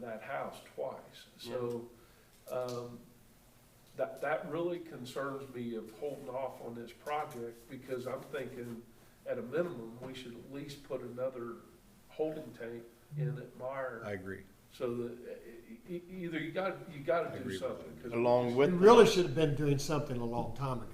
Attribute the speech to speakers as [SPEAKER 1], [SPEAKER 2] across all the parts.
[SPEAKER 1] that house twice. So, um, that, that really concerns me of holding off on this project because I'm thinking at a minimum, we should at least put another holding tank in at Meyer.
[SPEAKER 2] I agree.
[SPEAKER 1] So that, e- e- either you gotta, you gotta
[SPEAKER 2] I
[SPEAKER 1] do
[SPEAKER 2] agree with
[SPEAKER 1] something. 'cause
[SPEAKER 3] Along
[SPEAKER 4] We
[SPEAKER 3] with,
[SPEAKER 4] really should have been doing something a long time ago.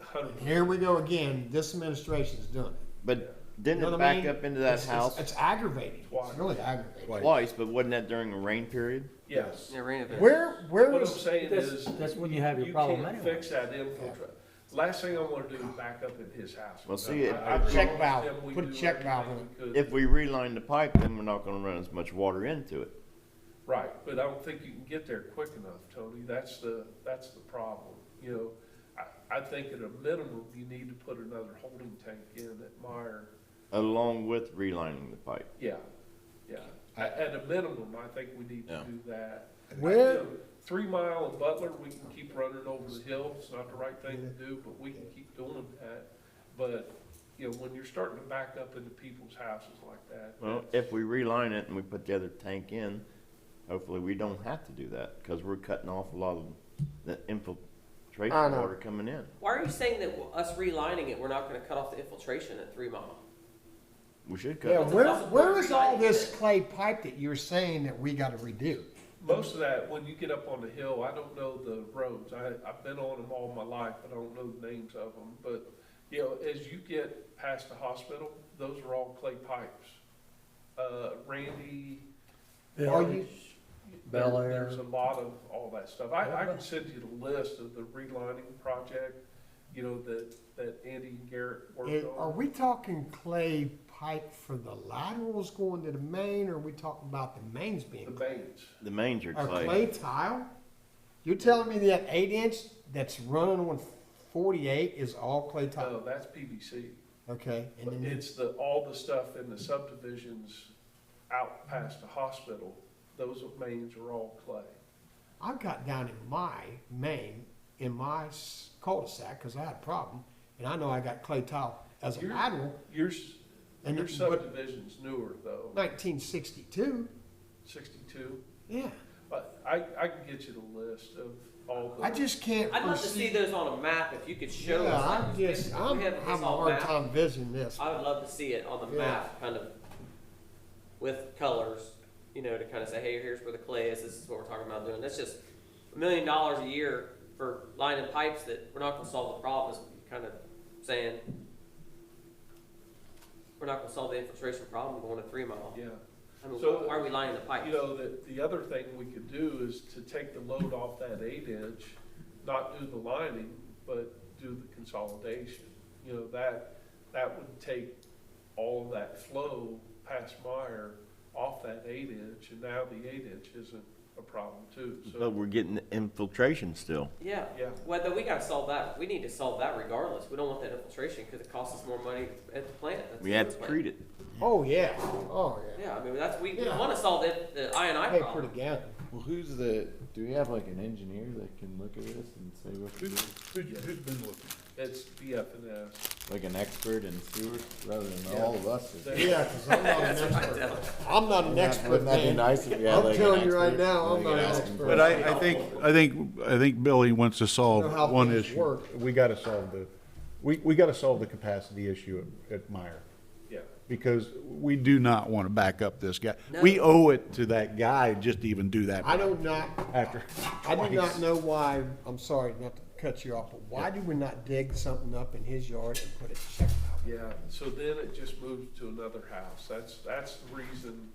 [SPEAKER 1] Hundred
[SPEAKER 4] And here we go again, this administration's doing it.
[SPEAKER 3] but didn't
[SPEAKER 4] You know
[SPEAKER 3] it
[SPEAKER 4] what I
[SPEAKER 3] back
[SPEAKER 4] mean?
[SPEAKER 3] up into that
[SPEAKER 4] It's- it's-
[SPEAKER 3] house
[SPEAKER 4] It's aggravating,
[SPEAKER 1] Twice.
[SPEAKER 4] it's really aggravating.
[SPEAKER 2] Twice.
[SPEAKER 3] twice, but wasn't that during a rain period?
[SPEAKER 1] Yes.
[SPEAKER 5] Yeah, rain event.
[SPEAKER 6] Where, where
[SPEAKER 1] What I'm
[SPEAKER 6] was,
[SPEAKER 1] saying
[SPEAKER 6] that's-
[SPEAKER 1] is.
[SPEAKER 6] that's when you have your problem
[SPEAKER 1] can't
[SPEAKER 6] anyway.
[SPEAKER 1] Fix that infiltrate. Last thing I wanna do is back up in his house.
[SPEAKER 3] Well, see, it-
[SPEAKER 1] I- I
[SPEAKER 3] Put a
[SPEAKER 4] check
[SPEAKER 1] promised
[SPEAKER 4] valve.
[SPEAKER 1] him we'd
[SPEAKER 4] Put a
[SPEAKER 1] do
[SPEAKER 4] check valve
[SPEAKER 1] everything we could.
[SPEAKER 3] If we reline the pipe, then we're not gonna run as much water into it.
[SPEAKER 1] Right, but I don't think you can get there quick enough, Tony. That's the, that's the problem, you know. I, I think at a minimum, you need to put another holding tank in at Meyer.
[SPEAKER 3] Along with relining the pipe.
[SPEAKER 1] Yeah, yeah. At, at a minimum, I think we need to
[SPEAKER 3] Yeah.
[SPEAKER 1] do that. You
[SPEAKER 6] where,
[SPEAKER 1] know, Three Mile and Butler, we can keep running over the hill. It's not the right thing to do, but we can keep doing that. But, you know, when you're starting to back up into people's houses like that.
[SPEAKER 3] Well, if we reline it and we put the other tank in, hopefully we don't have to do that, cause we're cutting off a lot of the infiltration
[SPEAKER 4] I know.
[SPEAKER 3] water coming in.
[SPEAKER 5] Why are you saying that us relining it, we're not gonna cut off the infiltration at Three Mile?
[SPEAKER 3] We should cut.
[SPEAKER 4] Yeah,
[SPEAKER 3] it.
[SPEAKER 4] where, where is all this clay pipe that you're saying that we gotta redo?
[SPEAKER 1] Most of that, when you get up on the hill, I don't know the roads. I, I've been on them all my life, but I don't know the names of them. But, you know, as you get past the hospital, those are all clay pipes. Uh, Randy.
[SPEAKER 4] Are you,
[SPEAKER 6] Bel
[SPEAKER 1] there-
[SPEAKER 6] Air.
[SPEAKER 1] There's a lot of all that stuff. I, I can send you the list of the relining project, you know, that, that Andy and Garrett worked
[SPEAKER 4] it- are
[SPEAKER 1] on.
[SPEAKER 4] we talking clay pipe for the laterals going to the main, or are we talking about the mains
[SPEAKER 1] The
[SPEAKER 4] being?
[SPEAKER 1] mains.
[SPEAKER 3] The manger
[SPEAKER 4] Or
[SPEAKER 3] clay.
[SPEAKER 4] clay tile? You're telling me that eight inch that's running on forty-eight is all clay
[SPEAKER 1] No,
[SPEAKER 4] tile?
[SPEAKER 1] that's PVC.
[SPEAKER 5] Oh.
[SPEAKER 4] Okay, and
[SPEAKER 1] But
[SPEAKER 4] then
[SPEAKER 1] It's the, all the stuff in the subdivisions out past the hospital, those mains are all clay.
[SPEAKER 4] I've got down in my main, in my s- cul-de-sac, because I had a problem, and I know I got clay tile as a
[SPEAKER 1] You're-
[SPEAKER 4] lateral,
[SPEAKER 1] Your, s-
[SPEAKER 4] And
[SPEAKER 1] your
[SPEAKER 4] it- but-
[SPEAKER 1] subdivision's newer though,
[SPEAKER 4] nineteen sixty-two,
[SPEAKER 1] sixty-two,
[SPEAKER 4] yeah.
[SPEAKER 1] but I, I can get you the list of all the.
[SPEAKER 4] I just can't.
[SPEAKER 5] I'd love to see
[SPEAKER 4] perceive-
[SPEAKER 5] those on a map if you could show
[SPEAKER 4] Oh, Yeah,
[SPEAKER 5] us.
[SPEAKER 4] I'm
[SPEAKER 5] like,
[SPEAKER 4] just,
[SPEAKER 5] if we
[SPEAKER 4] I'm
[SPEAKER 5] have this
[SPEAKER 4] having a
[SPEAKER 5] on
[SPEAKER 4] hard
[SPEAKER 5] map,
[SPEAKER 4] time visioning this.
[SPEAKER 5] I would love to see it on the
[SPEAKER 4] Yeah.
[SPEAKER 5] map, kind of with colors, you know, to kind of say, hey, here's where the clay is. This is what we're talking about doing. That's just a million dollars a year for lining pipes that we're not going to solve the problem. Is kind of saying we're not going to solve the infiltration problem going to three mile.
[SPEAKER 1] Yeah.
[SPEAKER 5] I mean,
[SPEAKER 1] So-
[SPEAKER 5] why are we lining the pipes?
[SPEAKER 1] You know, the, the other thing we could do is to take the load off that eight inch, not do the lining, but do the consolidation. You know, that, that would take all of that flow past Meyer off that eight inch, and now the eight inch isn't a problem too,
[SPEAKER 3] But
[SPEAKER 1] so,
[SPEAKER 3] we're getting the infiltration still.
[SPEAKER 5] Yeah.
[SPEAKER 1] Yeah.
[SPEAKER 5] Whether we gotta solve that, we need to solve that regardless. We don't want that infiltration because it costs us more money at the plant. That's
[SPEAKER 3] We
[SPEAKER 5] the
[SPEAKER 3] had
[SPEAKER 5] sewer
[SPEAKER 3] to
[SPEAKER 5] plant.
[SPEAKER 3] treat it.
[SPEAKER 4] Oh, yeah, oh, yeah.
[SPEAKER 5] Yeah, I mean that's we,
[SPEAKER 4] Yeah.
[SPEAKER 5] we want to solve the, the I and I
[SPEAKER 4] Pay pretty
[SPEAKER 5] problem.
[SPEAKER 4] gallon.
[SPEAKER 7] Well, who's the? Do we have like an engineer that can look at this and say what to do?
[SPEAKER 2] Who, who's been looking?
[SPEAKER 1] it's BFNS.
[SPEAKER 7] Like an expert in sewer, rather than all of us. is-
[SPEAKER 1] They-
[SPEAKER 4] Yeah, because I'm not an expert. I'm not an expert,
[SPEAKER 7] Wouldn't that be
[SPEAKER 4] man.
[SPEAKER 7] nice if we had
[SPEAKER 4] I'm
[SPEAKER 7] like an
[SPEAKER 4] telling you right
[SPEAKER 7] expert
[SPEAKER 4] now, I'm
[SPEAKER 7] that you
[SPEAKER 4] not
[SPEAKER 7] could
[SPEAKER 4] an
[SPEAKER 7] ask him
[SPEAKER 4] expert.
[SPEAKER 7] for
[SPEAKER 2] But I, I think, I think, I think Billy wants to
[SPEAKER 4] Know how
[SPEAKER 2] solve one
[SPEAKER 4] things
[SPEAKER 2] issue.
[SPEAKER 4] work.
[SPEAKER 2] We gotta solve the, we, we gotta solve the capacity issue at, at Meyer.
[SPEAKER 1] Yeah,
[SPEAKER 2] Because we do not wanna back up this guy.
[SPEAKER 5] No.
[SPEAKER 2] We owe it to that guy just to even
[SPEAKER 4] I
[SPEAKER 2] do that
[SPEAKER 4] do not
[SPEAKER 2] after.
[SPEAKER 4] I do
[SPEAKER 2] twice.
[SPEAKER 4] not know why, I'm sorry not to cut you off, but why do we not dig something up in his yard and put a check valve?
[SPEAKER 1] yeah, so then it just moves to another house, that's, that's the reason,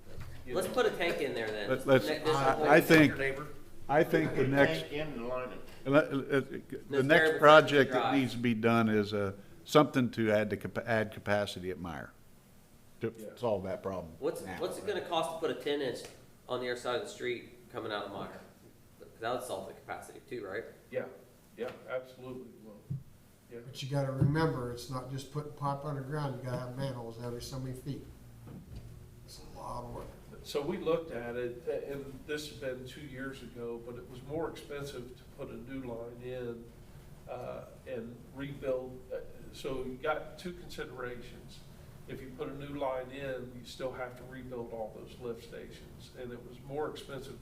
[SPEAKER 1] you know.
[SPEAKER 5] Let's put a tank in there then.
[SPEAKER 2] Let- let's-
[SPEAKER 5] Ne- this is
[SPEAKER 2] I-
[SPEAKER 5] what
[SPEAKER 2] I
[SPEAKER 5] we-
[SPEAKER 2] think-
[SPEAKER 1] Your neighbor,
[SPEAKER 2] I think the next.
[SPEAKER 3] Tank in and line it.
[SPEAKER 2] And let- let- The
[SPEAKER 5] Miss
[SPEAKER 2] next
[SPEAKER 5] Barrett,
[SPEAKER 2] project that
[SPEAKER 5] drive.
[SPEAKER 2] needs to be done is uh, something to add to, capa- add capacity at Meyer to
[SPEAKER 1] Yeah.
[SPEAKER 2] solve that problem.
[SPEAKER 5] What's
[SPEAKER 2] now.
[SPEAKER 5] what's it gonna cost to put a ten inch on the other side of the street coming out of Meyer? That would solve the capacity too, right?
[SPEAKER 1] yeah, yeah, absolutely, well, yeah.
[SPEAKER 4] But you gotta remember, it's not just putting pipe underground, you gotta have manholes every so many feet. It's a lot of work.
[SPEAKER 1] So we looked at it, a- and this has been two years ago, but it was more expensive to put a new line in uh, and rebuild. Uh, So you got two considerations. If you put a new line in, you still have to rebuild all those lift stations, and it was more expensive to